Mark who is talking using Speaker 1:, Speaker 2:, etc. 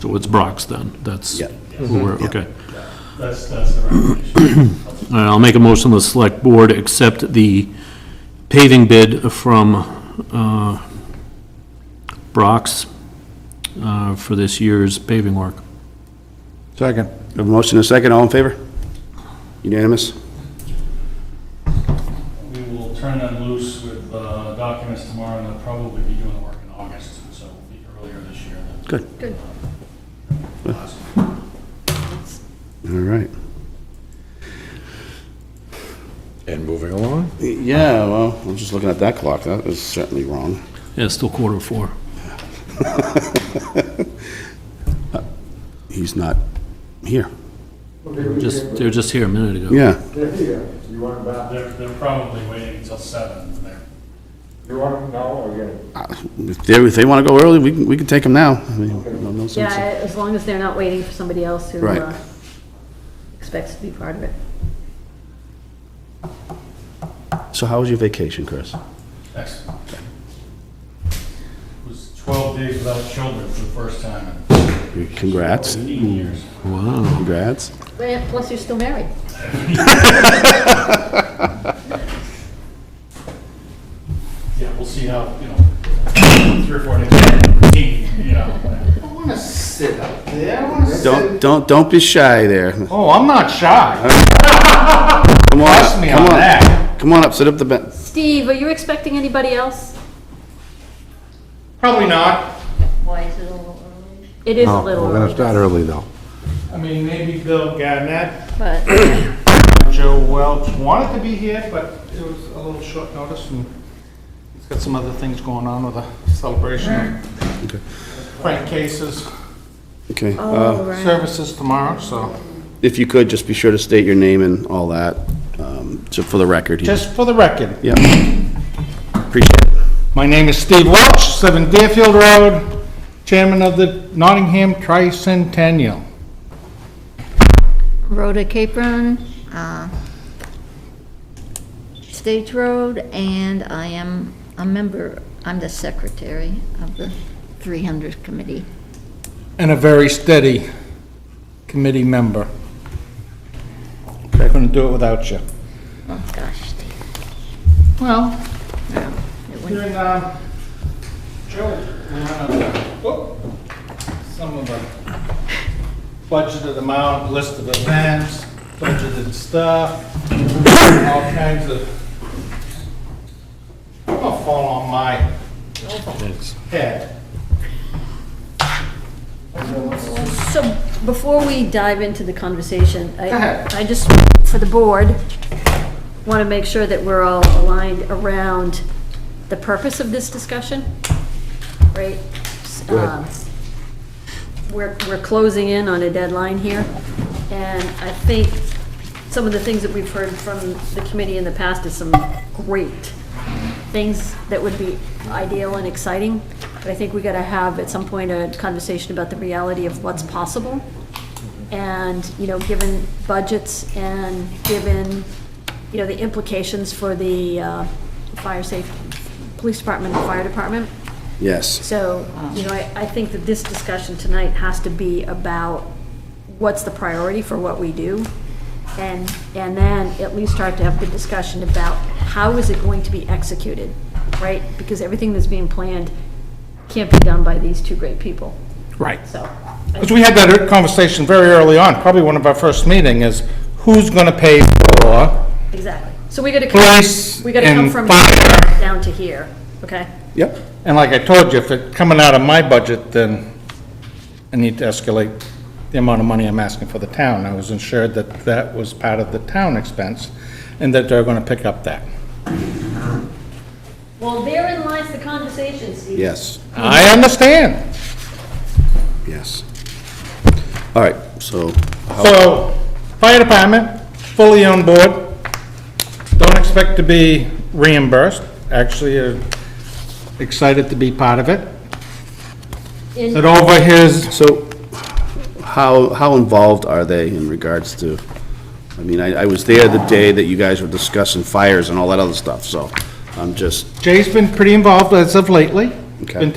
Speaker 1: So it's Brock's then, that's
Speaker 2: Yeah.
Speaker 1: who we're, okay.
Speaker 3: That's, that's the recommendation.
Speaker 1: All right, I'll make a motion, the select board accept the paving bid from uh, Brock's uh, for this year's paving work.
Speaker 4: Second.
Speaker 2: We have a motion and a second, all in favor? Unanimous?
Speaker 3: We will turn them loose with uh, documents tomorrow, and they'll probably be doing the work in August, so it'll be earlier this year than. uh,
Speaker 2: Good.
Speaker 5: Good.
Speaker 3: Last.
Speaker 2: All right.
Speaker 4: And moving along?
Speaker 2: Yeah, well, I'm just looking at that clock, that is certainly wrong.
Speaker 1: Yeah, it's still quarter to four.
Speaker 2: He's not here.
Speaker 1: Just, they were just here a minute ago.
Speaker 2: Yeah,
Speaker 4: They're here. You want them back?
Speaker 3: They're, they're probably waiting until seven, and they're
Speaker 4: You want them now or again?
Speaker 2: if they, if they want to go early, we can, we can take them now. I mean, no- no sense.
Speaker 5: Yeah, as long as they're not waiting for somebody else who
Speaker 2: Right.
Speaker 5: uh, expects to be part of it.
Speaker 2: So how was your vacation, Chris?
Speaker 3: excellent. It was 12 days without children for the first time in
Speaker 2: Congrats,
Speaker 3: 15 years.
Speaker 1: Wow.
Speaker 2: congrats.
Speaker 5: Eh, Plus, you're still married.
Speaker 3: Yeah, we'll see how, you know, three or four days, routine, you know.
Speaker 6: I want to sit up there. I want to
Speaker 2: Don't,
Speaker 6: sit.
Speaker 2: don't, don't be shy there. Come
Speaker 6: Oh, I'm not shy.
Speaker 2: on up,
Speaker 6: Trust me
Speaker 2: come
Speaker 6: on
Speaker 2: up.
Speaker 6: that.
Speaker 2: Come on up, sit up the bench.
Speaker 5: Steve, are you expecting anybody else?
Speaker 6: Probably not.
Speaker 5: It is a
Speaker 4: We're
Speaker 5: little
Speaker 4: going to
Speaker 5: early,
Speaker 4: start early, though.
Speaker 6: I mean, maybe Bill Gannett,
Speaker 4: Uh,
Speaker 5: but
Speaker 6: Joe Welch wanted to be here, but it was a little short notice and he's got some other things going on with a celebration. of Frank Case's
Speaker 2: Okay. uh,
Speaker 5: Oh, right.
Speaker 6: services tomorrow, so
Speaker 2: If you could, just be sure to state your name and all that, um, so for the record. here.
Speaker 6: just for the record,
Speaker 2: Yeah. Appreciate it.
Speaker 6: My name is Steve Welch, 7 Deerfield Road, chairman of the Nottingham Tricentennial.
Speaker 7: Rhoda Capron, uh, Stage Road, and I am a member, I'm the secretary of the 300 Committee.
Speaker 6: And a very steady committee member. Couldn't do it without you.
Speaker 7: Oh, gosh, Steve.
Speaker 6: Well,
Speaker 7: it
Speaker 6: Here
Speaker 7: wouldn't-
Speaker 6: in, um, Joe, we have, uh, whoop, some of the budgeted amount, list of events, budgeted stuff, all kinds of, I'm gonna fall on my head.
Speaker 5: So before we dive into the conversation,
Speaker 6: Go
Speaker 5: I,
Speaker 6: ahead.
Speaker 5: I just, for the board, want to make sure that we're all aligned around the purpose of this discussion, right? Um, We're, we're closing in on a deadline here, and I think some of the things that we've heard from the committee in the past is some great things that would be ideal and exciting, but I think we gotta have at some point a conversation about the reality of what's possible. And, you know, given budgets and given, you know, the implications for the uh, fire safe, police department and fire department.
Speaker 2: Yes.
Speaker 5: So, you know, I, I think that this discussion tonight has to be about what's the priority for what we do? And, and then at least start to have the discussion about how is it going to be executed, right? Because everything that's being planned can't be done by these two great people,
Speaker 6: Right.
Speaker 5: so. I
Speaker 6: Because we had that conversation very early on, probably one of our first meeting, is who's gonna pay for
Speaker 5: Exactly. So we gotta
Speaker 6: Police
Speaker 5: come, we gotta come
Speaker 6: and
Speaker 5: from
Speaker 6: fire.
Speaker 5: down to here, okay?
Speaker 2: Yep.
Speaker 6: And like I told you, if it's coming out of my budget, then I need to escalate the amount of money I'm asking for the town. I was assured that that was part of the town expense, and that they're gonna pick up that.
Speaker 5: Well, therein lies the conversation, Steve.
Speaker 2: Yes.
Speaker 6: I understand.
Speaker 2: Yes. All right, so,
Speaker 6: So, fire department, fully on board. Don't expect to be reimbursed. Actually, uh, excited to be part of it.
Speaker 5: In-
Speaker 6: It over his
Speaker 2: so how, how involved are they in regards to, I mean, I, I was there the day that you guys were discussing fires and all that other stuff, so I'm just,
Speaker 6: Jay's been pretty involved as of lately.
Speaker 2: Okay.
Speaker 6: been